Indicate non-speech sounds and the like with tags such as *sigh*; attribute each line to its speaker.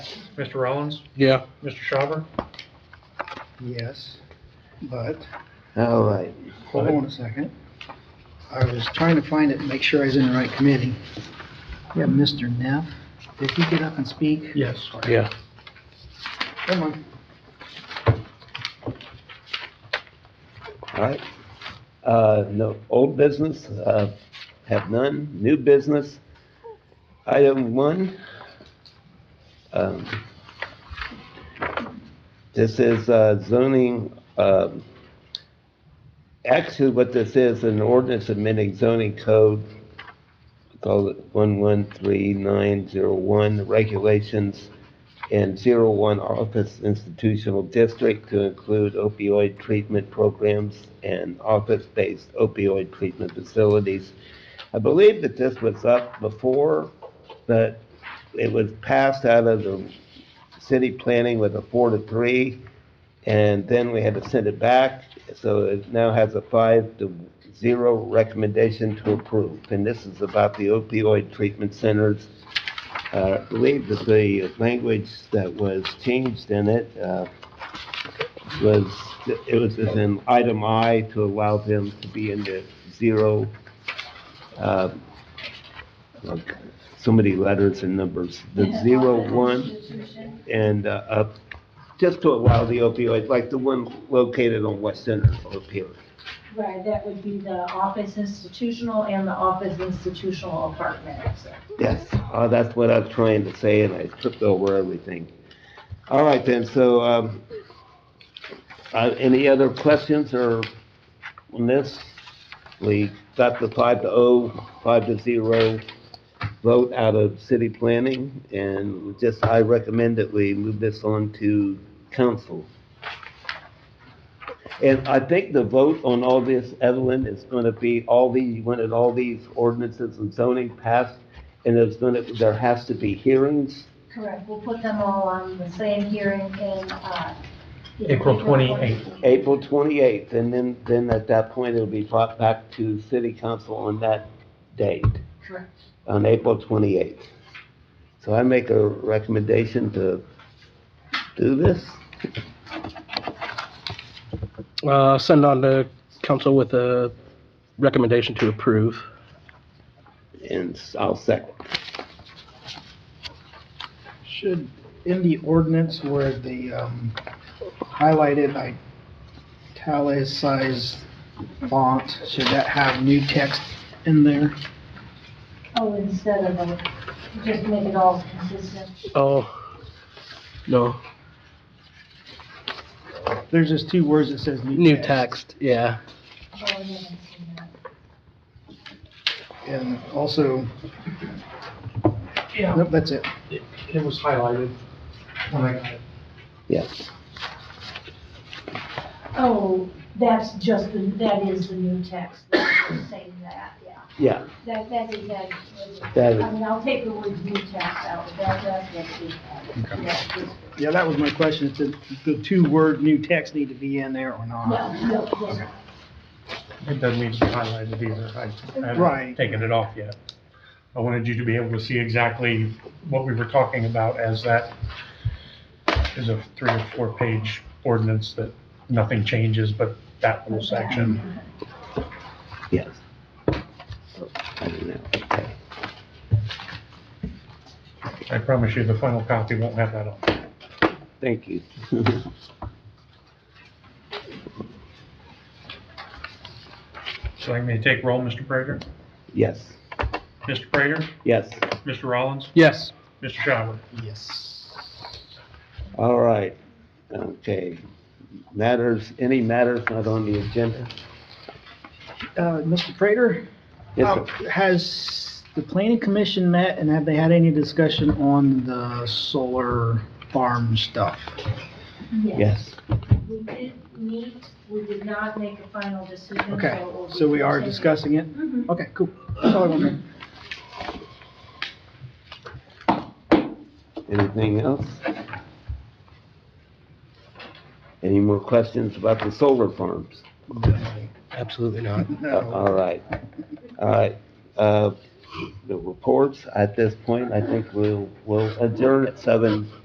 Speaker 1: Mr. Rollins?
Speaker 2: Yeah.
Speaker 1: Mr. Schauber?
Speaker 3: Yes, but,
Speaker 4: All right.
Speaker 3: hold on a second. I was trying to find it and make sure I was in the right committee. Yeah, Mr. Neff, did he get up and speak?
Speaker 1: Yes.
Speaker 2: Yeah.
Speaker 3: Come on.
Speaker 4: All right. Uh, no, old business, uh, have none. New business, item one. Um, This is uh, zoning, um, actually what this is, an ordinance amending zoning code called one-one-three-nine-zero-one regulations and zero-one office institutional district to include opioid treatment programs and office-based opioid treatment facilities. I believe that this was up before, but it was passed out of the city planning with a four to three, and then we had to send it back, so it now has a five to zero recommendation to approve. And this is about the opioid treatment centers uh, I believe that the language that was changed in it uh, was, it was as in item I to allow them to be in the zero, uh, like, so many letters and numbers, the zero, one, and uh, up, just to allow the opioid, like the one located on West Center up here.
Speaker 5: Right, that would be the office institutional and the office institutional apartment.
Speaker 4: Yes, uh, that's what I was trying to say, and I tripped over everything. All right then, so, um, uh, any other questions or on this? We got the five to oh, five to zero vote out of city planning, and just, I recommend that we move this on to council. And I think the vote on all this, Evelyn, is gonna be all these, you wanted all these ordinances and zoning passed and there's gonna, there has to be hearings.
Speaker 5: Correct, we'll put them all on the same hearing in, uh.
Speaker 1: April 28th.
Speaker 4: April twenty-eighth, and then, then at that point, it'll be brought back to city council on that date,
Speaker 5: Correct.
Speaker 4: on April twenty-eighth. So I make a recommendation to do this.
Speaker 2: Uh, send on to council with a recommendation to approve.
Speaker 4: And I'll second.
Speaker 3: Should, in the ordinance where the, um, highlighted, italicized font, should that have new text in there?
Speaker 5: Oh, instead of, uh, just make it all consistent.
Speaker 2: Oh, no,
Speaker 3: There's just two words that says new text.
Speaker 2: new text, yeah.
Speaker 5: Oh, I haven't seen that.
Speaker 3: And also, nope, that's it.
Speaker 1: It it was highlighted when I,
Speaker 4: Yes.
Speaker 5: Oh, that's just, the that is the new text, saying that, yeah.
Speaker 4: Yeah,
Speaker 5: That, that is, that.
Speaker 4: That is-
Speaker 5: I mean, I'll take the word new text out, that, that's what we have. Yeah, just-
Speaker 3: Yeah, that was my question, if the, the two-word new text need to be in there or not?
Speaker 5: No, no, no.
Speaker 1: it doesn't need to be highlighted either. I- I haven't
Speaker 3: Right.
Speaker 1: taken it off yet. I wanted you to be able to see exactly what we were talking about as that is a three or four page ordinance that nothing changes but that little section.
Speaker 4: yes. I don't know. Okay.
Speaker 1: I promise you, the final copy won't have that on.
Speaker 4: Thank you. *laughs*
Speaker 1: So I'm going to take roll, Mr. Prater.
Speaker 4: Yes,
Speaker 1: Mr. Prater,
Speaker 4: yes.
Speaker 1: Mr. Rollins,
Speaker 2: Yes,
Speaker 1: Mr. Schauber.
Speaker 3: Yes.
Speaker 4: All right, okay. Matters, any matters not on the agenda?
Speaker 3: Uh, Mr. Prater?
Speaker 4: Yes,
Speaker 3: Uh,
Speaker 4: sir.
Speaker 3: Has the planning commission met and have they had any discussion on the solar farm stuff?
Speaker 5: Oh.
Speaker 4: Yes.
Speaker 5: We did meet, we did not make a final decision. so
Speaker 3: Okay,
Speaker 5: it will be
Speaker 3: so we are
Speaker 5: continued.
Speaker 3: discussing it?
Speaker 5: Mhm.
Speaker 3: Okay, cool. That's all I wanted.
Speaker 4: Anything else? Any more questions about the solar farms? Uh,
Speaker 2: absolutely not.
Speaker 3: No.
Speaker 4: All right, all right. Uh, The reports at this point, I think we'll, we'll adjourn at seven